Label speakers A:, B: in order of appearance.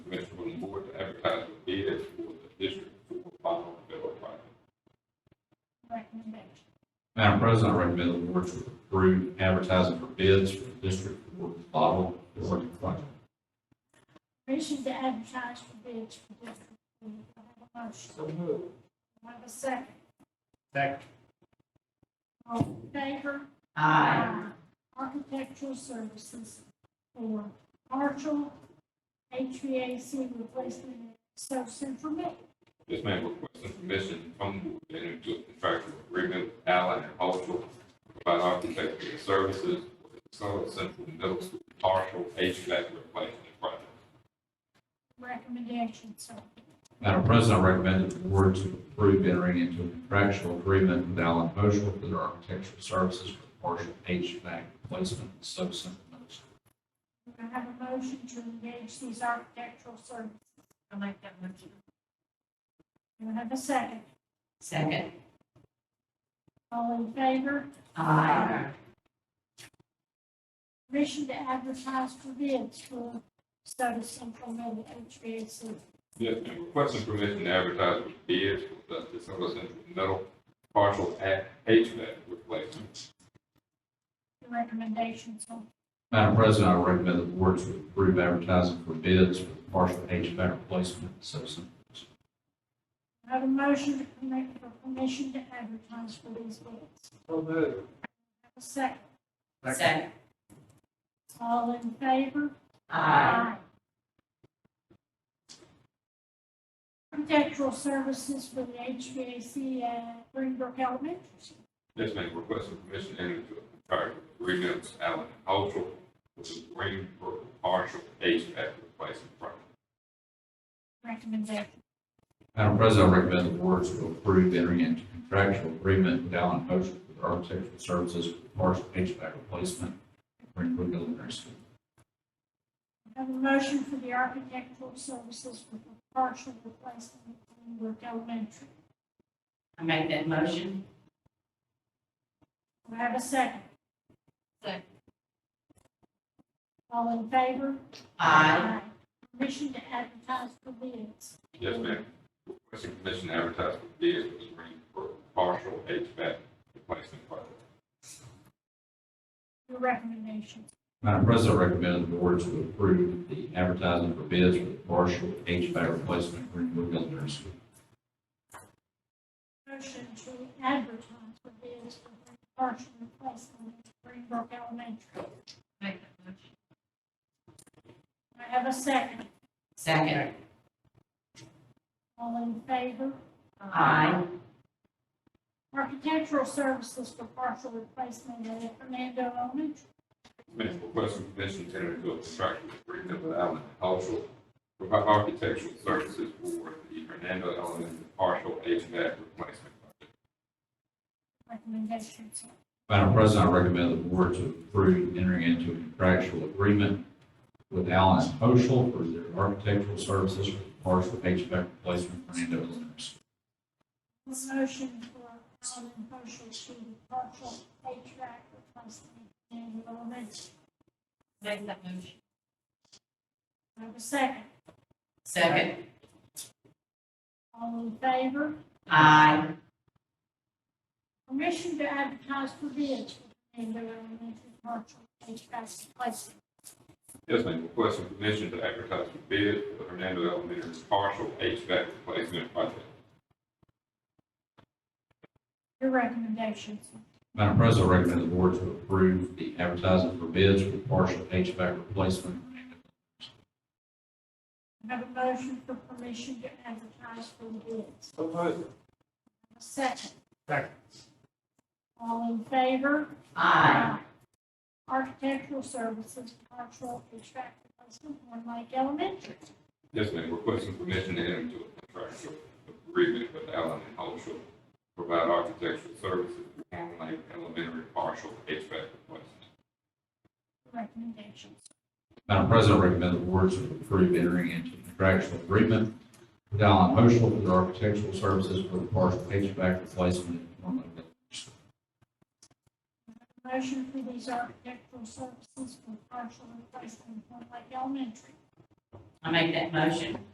A: advertise for bids for the district four final development project.
B: Madam President, I recommend the board to approve advertising for bids for District Four Bottle Development Project.
C: Permission to advertise for bids for District Four. Do I have a motion?
D: So moved.
C: Do I have a second?
D: Second.
C: All in favor?
D: Aye.
C: Architectural services for partial HVAC replacement at South Central Middle.
A: This man requesting permission from the board to enter into a contractual agreement with Allen and Cultural to provide architectural services for the South Central Middle School partial HVAC replacement project.
C: Recommendation, sir.
B: Madam President, I recommend the board to approve entering into a contractual agreement with Allen Moschel for their architectural services for the partial HVAC replacement at Soap Central Middle School.
C: Do I have a motion to engage these architectural services?
E: I like that motion.
C: Do I have a second?
E: Second.
C: All in favor?
E: Aye.
C: Permission to advertise for bids for South Central Middle HVAC.
A: Yes, and requesting permission to advertise for bids for the South Central Middle partial HVAC replacement.
C: Recommendation, sir.
B: Madam President, I recommend the board to approve advertising for bids for the partial HVAC replacement at Soap Central.
C: Do I have a motion to permit, for permission to advertise for these bids.
D: So moved.
C: Have a second.
E: Second.
C: All in favor? Architectural services for the HVAC at Greenbrook Elementary.
A: Yes, ma'am, requesting permission to enter into a contractual agreement with Allen and Cultural for the Greenbrook partial HVAC replacement project.
C: Recommendation.
B: Madam President, I recommend the board to approve entering into contractual agreement with Allen Moschel for their architectural services for the partial HVAC replacement at Greenwood Elementary School.
C: I Have a motion for the architectural services for the partial replacement at Greenbrook Elementary.
E: I make that motion.
C: Do I have a second?
E: Second.
C: All in favor?
E: Aye.
C: Permission to advertise for bids.
A: Yes, ma'am. Requesting permission to advertise for bids for the Greenbrook partial HVAC replacement project.
C: Your recommendation.
B: Madam President, I recommend the board to approve the advertising for bids for the partial HVAC replacement at Greenwood Elementary School.
C: Motion to advertise for bids for the partial replacement at Greenbrook Elementary.
E: Make that motion.
C: Do I have a second?
E: Second.
C: All in favor?
E: Aye.
C: Architectural services for partial replacement at Fernando Elementary.
A: Ma'am, requesting permission to enter into a contractual agreement with Allen and Cultural for our architectural services for the Hernando Elementary partial HVAC replacement.
C: Recommendation, sir.
B: Madam President, I recommend the board to approve entering into a contractual agreement with Allen Moschel for their architectural services for the partial HVAC replacement at Greenwood Elementary School.
C: Motion for Allen Moschel to the partial HVAC replacement at Fernando Elementary.
E: Make that motion.
C: Do I have a second?
E: Second.
C: All in favor?
E: Aye.
C: Permission to advertise for bids for Fernando Elementary partial HVAC replacement.
A: Yes, ma'am, requesting permission to advertise for bids for the Hernando Elementary partial HVAC replacement project.
C: Your recommendations.
B: Madam President, I recommend the board to approve the advertising for bids for the partial HVAC replacement at Greenwood
C: I Have a motion for permission to advertise for bids.
D: So moved.
C: A Second.
D: Second.
C: All in favor?
E: Aye.
C: Architectural services, partial HVAC replacement, Horn Lake Elementary.
A: Yes, ma'am, requesting permission to enter into a contractual agreement with Allen and Cultural to provide architectural services for Horn Lake Elementary partial HVAC replacement.
C: Recommendations.
B: Madam President, I recommend the board to approve entering into contractual agreement with Allen Moschel for their architectural services for the partial HVAC replacement at Horn Lake Elementary.
C: Motion for these architectural services for partial replacement, Horn Lake Elementary.
E: I make that motion.